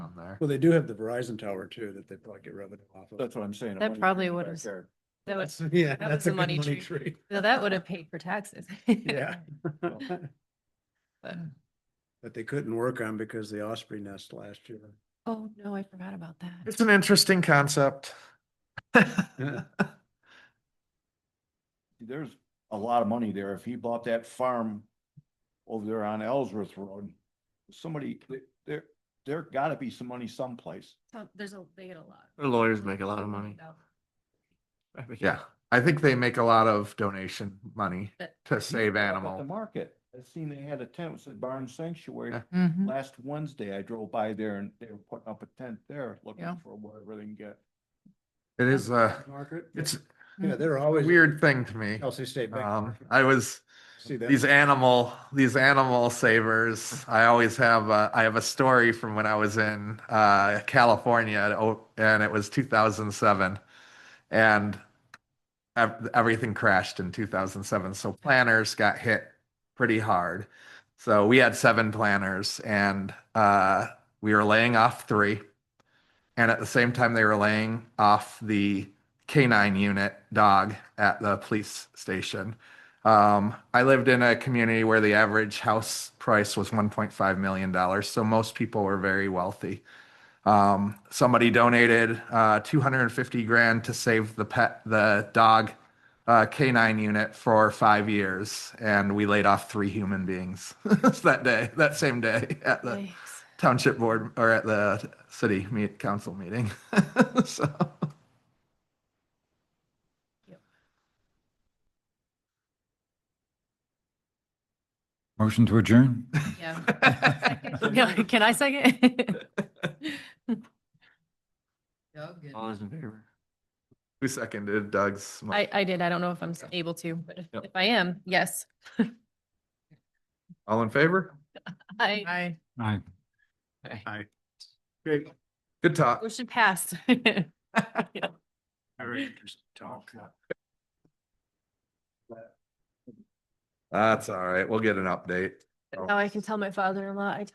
Well, they do have the Verizon tower too, that they probably get revenue off of. That's what I'm saying. That probably would have- have. That would, That's- Yeah, that that's was a the good money money tree. tree. no, that would have paid for taxes. Yeah. But- That they couldn't work on because the Osprey nest last year. Oh, no, I forgot about that. It's an interesting concept. There's a lot of money there. If he bought that farm over there on Ellsworth Road, somebody, there- there, there gotta be some money someplace. So There's a, they get a lot. Their lawyers make a lot of money. Yeah, I think they make a lot of donation money But- to save Up at The animal. market. I seen they had a tent, it said Barn Sanctuary. Yeah. Mm-hmm. Mhm. Last Wednesday, I drove by there and they were putting up a tent there Yeah. looking for whatever they can get. It is Uh, a, Margaret? it's a Yeah, they're always. weird thing to me. Kelsey State Bank. Um, I was, See that? these animal, these animal savers, I always have, a- I have a story from when I was in uh, California and o- and it was 2007. And ev- everything crashed in 2007. So planners got hit pretty hard. So we had seven planners and uh, we were laying off three. And at the same time, they were laying off the canine unit dog at the police station. Um, I lived in a community where the average house price was $1.5 million. So most people were very wealthy. Um, somebody donated uh, 250 grand to save the pet, the dog uh, canine unit for five years. And we laid off three human beings that day, that same day at the Yikes. township board or at the city meet, council meeting. so, Motion to adjourn? Yeah. Second. Can I second? All those in favor? who seconded Doug's? mo- I, I did. I don't know if I'm s- able to, but if- Yep. if I am, yes. All in favor? I, Aye. Hey. Great. Good talk. motion passed. Very interesting talk. That's all right. We'll get an Oh. update. Now I can tell my father-in-law I